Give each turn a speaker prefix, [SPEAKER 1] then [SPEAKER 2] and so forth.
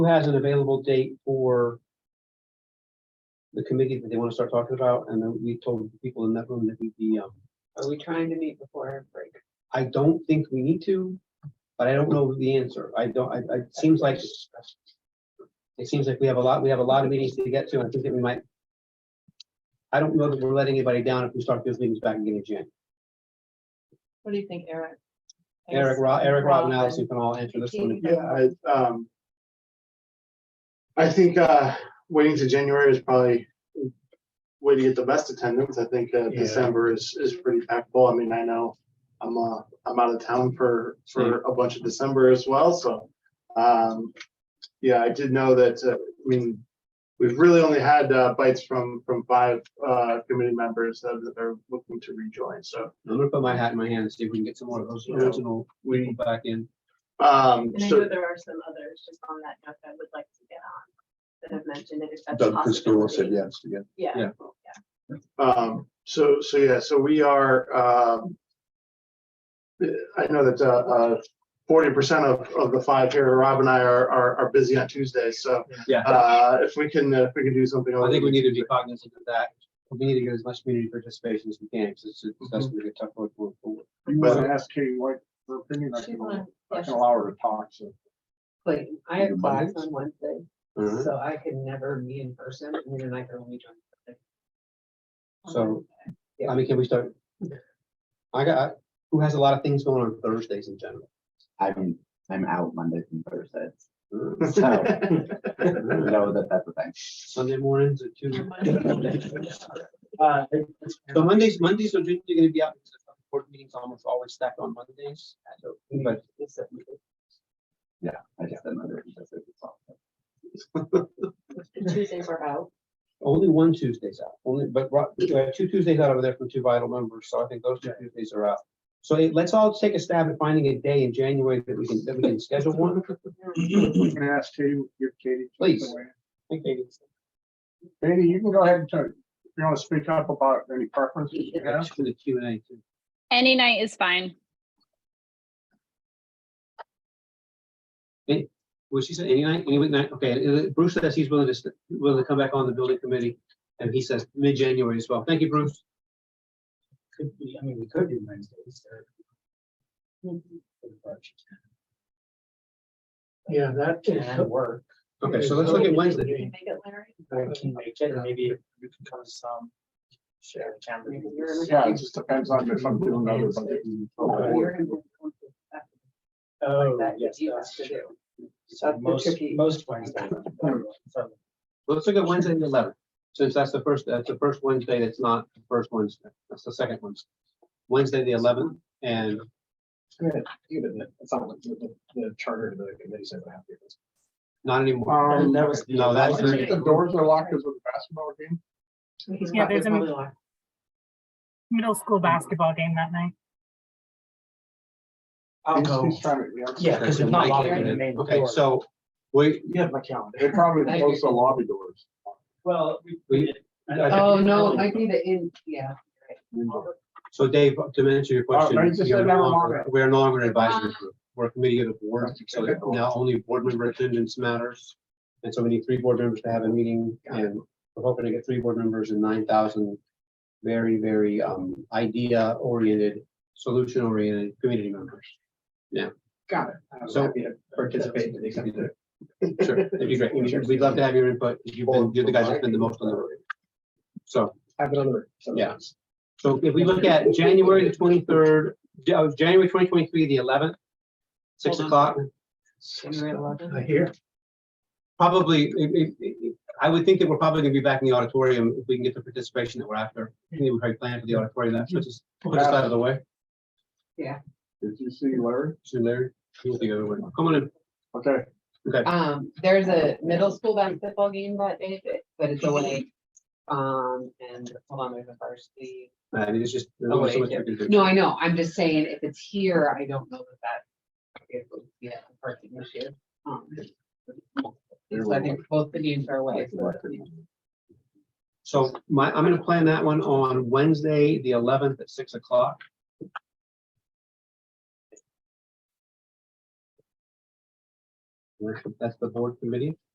[SPEAKER 1] who has an available date for the committee that they want to start talking about, and then we told people in that room that we'd be, um,
[SPEAKER 2] Are we trying to meet before our break?
[SPEAKER 1] I don't think we need to, but I don't know the answer. I don't, I, I, it seems like it seems like we have a lot, we have a lot of meetings to get to, and I think that we might I don't know that we're letting anybody down if we start those meetings back again in January.
[SPEAKER 2] What do you think, Eric? I
[SPEAKER 1] Eric,
[SPEAKER 2] guess
[SPEAKER 1] Ro- Eric, Rob, and
[SPEAKER 2] Rob
[SPEAKER 1] Allison can all answer this one.
[SPEAKER 3] Yeah, I, um. I think, uh, waiting to January is probably way to get the best attendance. I think, uh,
[SPEAKER 4] Yeah.
[SPEAKER 3] December is, is pretty impactful. I mean, I know I'm, uh, I'm out of town for, for a bunch of December as well, so, um, yeah, I did know that, uh, I mean, we've really only had, uh, bites from, from five, uh, committee members that that are looking to rejoin, so
[SPEAKER 1] I'm gonna put my hat in my hand and see if we can get some more of those
[SPEAKER 3] Yeah.
[SPEAKER 1] original people
[SPEAKER 3] we,
[SPEAKER 1] back in.
[SPEAKER 3] um,
[SPEAKER 2] And I know
[SPEAKER 3] so,
[SPEAKER 2] there are some others just on that note that I would like to get on that have mentioned it if that's a
[SPEAKER 4] Doug Christodoulou said
[SPEAKER 2] possibility.
[SPEAKER 4] yes again.
[SPEAKER 2] Yeah.
[SPEAKER 1] yeah.
[SPEAKER 3] Um, so, so yeah, so we are, um. I know that, uh, forty percent of, of the five here, Rob and I are, are, are busy on Tuesdays, so.
[SPEAKER 1] Yeah.
[SPEAKER 3] Uh, if we can, uh, if we can do something.
[SPEAKER 1] I think we need to be cognizant of that. We need to get as much community participation as we can, because it's, it's- that's gonna be a tough road going forward.
[SPEAKER 5] You
[SPEAKER 3] But-
[SPEAKER 5] want to ask Katie White her opinion, I
[SPEAKER 2] She
[SPEAKER 5] can,
[SPEAKER 2] won.
[SPEAKER 5] I can allow her to talk, so.
[SPEAKER 6] Clayton, I have class on Wednesday,
[SPEAKER 2] Uh-huh.
[SPEAKER 1] Alright.
[SPEAKER 6] so I can never meet in person, and then I can only join.
[SPEAKER 1] So, I mean, can we start? I got, who has a lot of things going on Thursdays in general?
[SPEAKER 7] I'm, I'm out Mondays and Thursdays.
[SPEAKER 1] Uh,
[SPEAKER 7] So, know that that's a thing.
[SPEAKER 1] Sunday mornings at
[SPEAKER 6] Um,
[SPEAKER 1] two.
[SPEAKER 3] Uh,
[SPEAKER 1] So Mondays, Mondays are generally gonna be out, because the board meetings almost always stack on Mondays. So, But
[SPEAKER 7] I just didn't know there was such a thing.
[SPEAKER 2] The Tuesdays are out.
[SPEAKER 1] only one Tuesday's out, only, but Ro- we have two Tuesdays out over there from two vital members, so I think those two Tuesdays are out. So eh, let's all take a stab at finding a day in January that we can, that we can schedule one.
[SPEAKER 5] I'm gonna ask Katie, give Katie. a chance to weigh in.
[SPEAKER 1] Okay.
[SPEAKER 5] Katie, you can go ahead and tell, if you want to speak up about any preferences you have.
[SPEAKER 1] For the Q and A too.
[SPEAKER 8] Any night is fine.
[SPEAKER 1] Was she said any night, any weeknight? Okay, and, uh, Bruce says he's willing to, st- willing to come back on the building committee, and he says mid-January as well. Thank you, Bruce.
[SPEAKER 6] Could be, I mean, we could do Wednesdays.
[SPEAKER 9] Yeah, that
[SPEAKER 6] Can
[SPEAKER 9] can,
[SPEAKER 6] work.
[SPEAKER 1] Okay, so let's look at Wednesday.
[SPEAKER 2] Can you make it, Larry?
[SPEAKER 9] I can make it, and maybe we can come to some share camera.
[SPEAKER 5] Yeah, it just depends on if I'm doing other budget.
[SPEAKER 6] You're in the conflict after
[SPEAKER 9] Oh,
[SPEAKER 6] That
[SPEAKER 9] yes,
[SPEAKER 6] you have
[SPEAKER 9] that's
[SPEAKER 6] to
[SPEAKER 9] true.
[SPEAKER 6] do.
[SPEAKER 9] So
[SPEAKER 6] That's the
[SPEAKER 9] most,
[SPEAKER 6] tricky-
[SPEAKER 9] most Wednesday. So,
[SPEAKER 1] Well, Let's look at Wednesday the eleventh, since that's the first, that's the first Wednesday, that's not the first Wednesday, that's the second Wednesday. Wednesday, the eleventh, and
[SPEAKER 4] Even if it's not like the, the charter, of the committee's never happy.
[SPEAKER 1] not anymore.
[SPEAKER 5] Um,
[SPEAKER 9] And that was. the-
[SPEAKER 1] No,
[SPEAKER 5] I
[SPEAKER 1] that's-
[SPEAKER 5] think the doors are locked because of the basketball game.
[SPEAKER 6] He's
[SPEAKER 10] Yeah,
[SPEAKER 6] probably-
[SPEAKER 10] there's a-
[SPEAKER 6] probably like-
[SPEAKER 10] middle school basketball game that night.
[SPEAKER 9] I'll
[SPEAKER 5] He's-
[SPEAKER 9] go,
[SPEAKER 5] he's trying to- yeah.
[SPEAKER 9] yeah, because there's not a lot of the main
[SPEAKER 1] Okay,
[SPEAKER 9] door.
[SPEAKER 1] so, we,
[SPEAKER 9] You have my calendar.
[SPEAKER 5] They probably
[SPEAKER 6] Thank
[SPEAKER 5] close the
[SPEAKER 6] you.
[SPEAKER 5] lobby doors.
[SPEAKER 9] Well,
[SPEAKER 1] we,
[SPEAKER 6] Oh, no, I need to in, yeah.
[SPEAKER 1] so Dave, to answer your question.
[SPEAKER 5] no, you just
[SPEAKER 1] you're
[SPEAKER 5] said
[SPEAKER 1] no
[SPEAKER 5] never
[SPEAKER 1] longer-
[SPEAKER 5] mind.
[SPEAKER 1] We're no longer an advisory group, we're a committee of the board, so
[SPEAKER 5] Okay, cool.
[SPEAKER 1] now only board member attendance matters. And so we need three board members to have a meeting, and we're hoping to get three board members and nine thousand very, very, um, idea-oriented, solution-oriented community members.
[SPEAKER 4] Got it. I'm
[SPEAKER 1] So-
[SPEAKER 4] happy to Participate to the extent that.
[SPEAKER 1] Sure, that'd be great. We- We'd love to have your input. You've been, you're the guys that spend the most on the road. So,
[SPEAKER 4] Have it on the. record. So-
[SPEAKER 1] Yeah. so if we look at January the twenty-third, uh, January twenty twenty-three, the eleventh, six
[SPEAKER 6] Hold on.
[SPEAKER 1] o'clock,
[SPEAKER 6] January 11th.
[SPEAKER 4] Uh,
[SPEAKER 9] I hear.
[SPEAKER 1] probably, it- it- it- I would think that we're probably gonna be back in the auditorium if we can get the participation that we're after. I think we already planned for the auditorium, that puts us, puts us out of the way.
[SPEAKER 5] Did you see Larry?
[SPEAKER 1] So Larry, you'll be over. Come on in.
[SPEAKER 5] Okay,
[SPEAKER 1] Okay,
[SPEAKER 6] Um, there's a middle school basketball game that day, but- but it's away. Um, and hold on, there's a varsity.
[SPEAKER 1] Uh, I mean, it's just. there's
[SPEAKER 6] Oh,
[SPEAKER 1] only so
[SPEAKER 6] wait,
[SPEAKER 1] much
[SPEAKER 6] yeah.
[SPEAKER 1] we can do.
[SPEAKER 6] No, I know. I'm just saying, if it's here, I don't know that that. it would be a person this year. Um, So I think both the games are away. so that's the-
[SPEAKER 1] So my, I'm gonna plan that one on Wednesday, the eleventh at six o'clock. That's the board committee.